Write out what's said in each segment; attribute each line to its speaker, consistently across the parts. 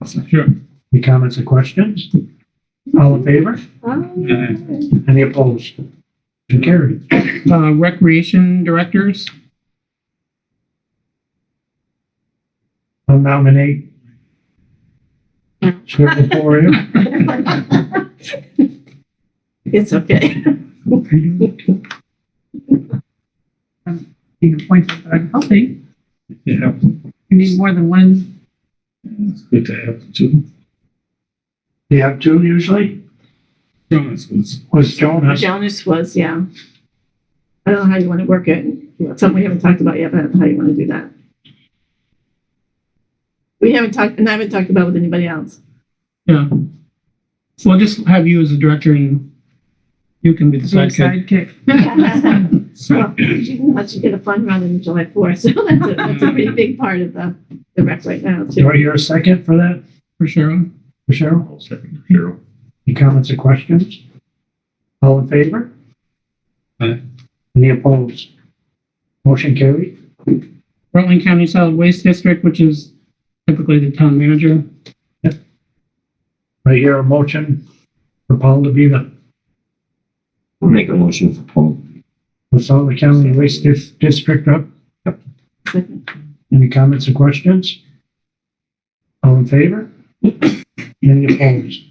Speaker 1: Councilman.
Speaker 2: Sure.
Speaker 1: Any comments or questions? All in favor?
Speaker 3: Oh.
Speaker 1: Any opposed? Motion carried.
Speaker 2: Uh, recreation directors,
Speaker 1: I'll nominate Swivel for you.
Speaker 3: It's okay.
Speaker 4: being appointed, but I'm helping.
Speaker 5: Yeah,
Speaker 4: You need more than one.
Speaker 5: it's good to have two.
Speaker 1: Do you have two usually?
Speaker 5: Jonas was,
Speaker 1: Was Jonas?
Speaker 3: Jonas was, yeah. I don't know how you want to work it. Something we haven't talked about yet, but I don't know how you want to do that. We haven't talked, and I haven't talked about it with anybody else.
Speaker 2: yeah. So I'll just have you as the director and you can be the
Speaker 4: being
Speaker 2: sidekick.
Speaker 3: Well, Unless you get a fun run in July 4th, so that's a, that's a pretty big part of the, the rec right now,
Speaker 1: Do
Speaker 3: too.
Speaker 1: I hear a second for that,
Speaker 2: For Cheryl?
Speaker 1: for Cheryl?
Speaker 5: I'll second Carol.
Speaker 1: Any comments or questions? All in favor?
Speaker 5: Aye.
Speaker 1: Any opposed? Motion carried.
Speaker 2: Rutland County Solid Waste District, which is typically the town manager.
Speaker 1: I hear a motion for Paul to be the
Speaker 6: We'll make a motion for Paul.
Speaker 1: Wasaga County Waste Dis- District Rep. Any comments or questions? All in favor? Any opposed?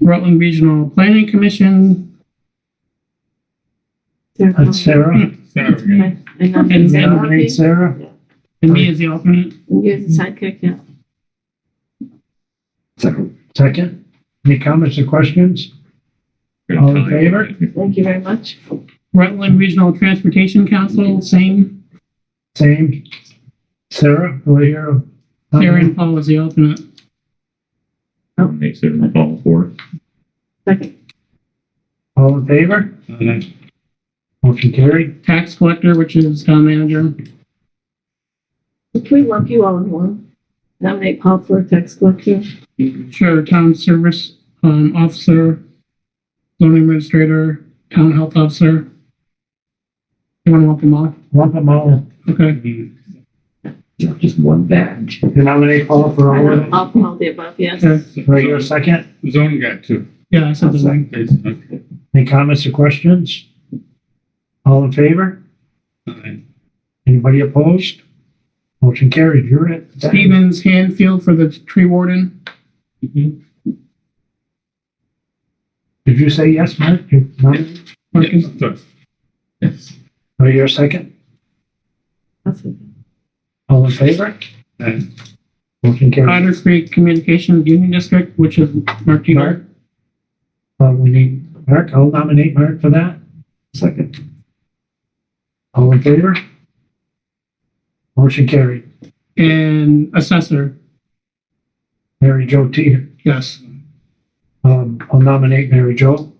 Speaker 2: Rutland Regional Planning Commission
Speaker 1: That's Sarah.
Speaker 5: Sorry.
Speaker 3: And uh, I'm
Speaker 2: And
Speaker 1: Nominate Sarah.
Speaker 2: and me as the alternate.
Speaker 3: You're the sidekick, yeah.
Speaker 6: Second.
Speaker 1: Second. Any comments or questions? All in favor?
Speaker 3: Thank you very much.
Speaker 2: Rutland Regional Transportation Council, same.
Speaker 1: Same. Sarah, will you hear? a-
Speaker 2: Sarah and Paul as the alternate.
Speaker 5: Makes it all four.
Speaker 3: Second,
Speaker 1: All in favor?
Speaker 5: Aye.
Speaker 1: Motion carried.
Speaker 2: Tax collector, which is town manager.
Speaker 3: can we lump you all in one? Nominate Paul for tax collector?
Speaker 2: Sure, town service, um, officer, zoning administrator, town health officer. You wanna lump them all?
Speaker 1: Lump them all.
Speaker 2: Okay,
Speaker 6: Not just one badge.
Speaker 1: You nominate Paul for all of them?
Speaker 3: All, all the above, yes.
Speaker 2: okay,
Speaker 1: Do I hear a second?
Speaker 5: Zone got two.
Speaker 2: yeah, I said the thing.
Speaker 5: It's, okay.
Speaker 1: Any comments or questions? All in favor?
Speaker 5: Aye.
Speaker 1: Anybody opposed? Motion carried. You're it.
Speaker 2: Stevens Hanfield for the tree warden. Mm-hmm.
Speaker 5: Mhm.
Speaker 1: Did you say yes, Mark? You nominated?
Speaker 2: Marcus.
Speaker 5: Yes, sorry. Yes.
Speaker 1: Do I hear a second?
Speaker 3: That's it.
Speaker 1: All in favor?
Speaker 5: Aye.
Speaker 1: Motion carried.
Speaker 2: Otter Creek Communications Union District, which is Mark
Speaker 1: Mark?
Speaker 2: Teeter.
Speaker 1: Uh, we need Mark. I'll nominate Mark for that.
Speaker 6: Second.
Speaker 1: All in favor? Motion carried.
Speaker 2: And assessor,
Speaker 1: Mary Jo Teeter.
Speaker 2: yes.
Speaker 1: Um, I'll nominate Mary Jo.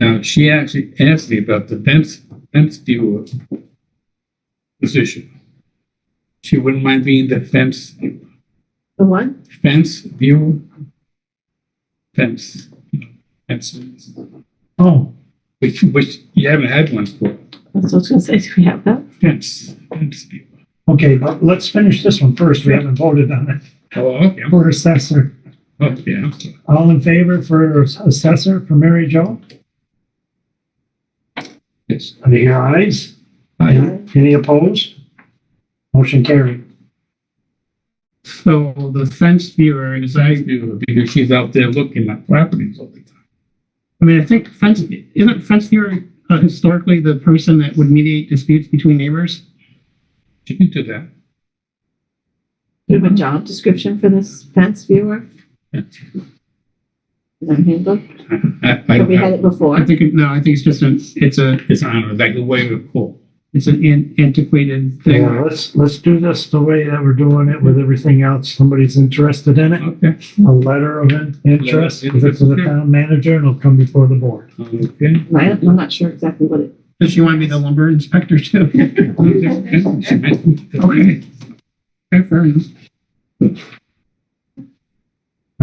Speaker 5: Now, she actually asked me about the fence, fence viewer position. She wouldn't mind being the fence,
Speaker 3: The one?
Speaker 5: fence viewer. Fence, fence,
Speaker 1: Oh,
Speaker 5: which, which you haven't had one for,
Speaker 3: That's what I was gonna say, do we have that?
Speaker 5: fence, fence viewer.
Speaker 1: okay. But let's finish this one first. We haven't voted on it.
Speaker 5: Oh, okay,
Speaker 1: For assessor.
Speaker 5: oh, yeah, I'm sorry.
Speaker 1: All in favor for assessor for Mary Jo?
Speaker 5: yes.
Speaker 1: Are they your ayes?
Speaker 6: Aye.
Speaker 1: Any opposed? Motion carried.
Speaker 2: So the fence viewer is,
Speaker 5: I
Speaker 2: I,
Speaker 5: do, because she's out there looking at properties all the time.
Speaker 2: I mean, I think fence, isn't fence viewer uh, historically the person that would mediate disputes between neighbors?
Speaker 5: She can do that.
Speaker 3: Do you have a job description for this fence viewer?
Speaker 5: Yeah.
Speaker 3: Their handbook?
Speaker 5: I- I-
Speaker 3: Have we had it
Speaker 2: I
Speaker 3: before?
Speaker 2: think, it- no, I think it's just an, it's a,
Speaker 5: It's on, like the way we call.
Speaker 2: it's an an- antiquated
Speaker 1: Yeah,
Speaker 2: thing.
Speaker 1: let's, let's do this the way that we're doing it with everything else. Somebody's interested in it,
Speaker 5: Okay,
Speaker 1: a letter of in- interest, give it to the town manager and it'll come before the board.
Speaker 5: okay.
Speaker 3: I don't- I'm not sure exactly what it,
Speaker 2: Does she want to be the lumber inspector too?
Speaker 5: Okay.
Speaker 2: Okay, fair enough.
Speaker 1: All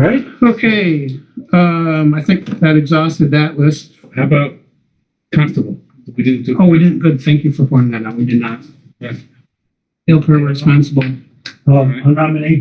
Speaker 1: Right?
Speaker 2: Okay, um, I think that exhausted that list.
Speaker 5: How about constable? We didn't do.
Speaker 2: Oh, we didn't, good, thank you for pointing that out, we did not.
Speaker 5: Yeah.
Speaker 2: Feel per responsible.
Speaker 1: Um, I'll nominate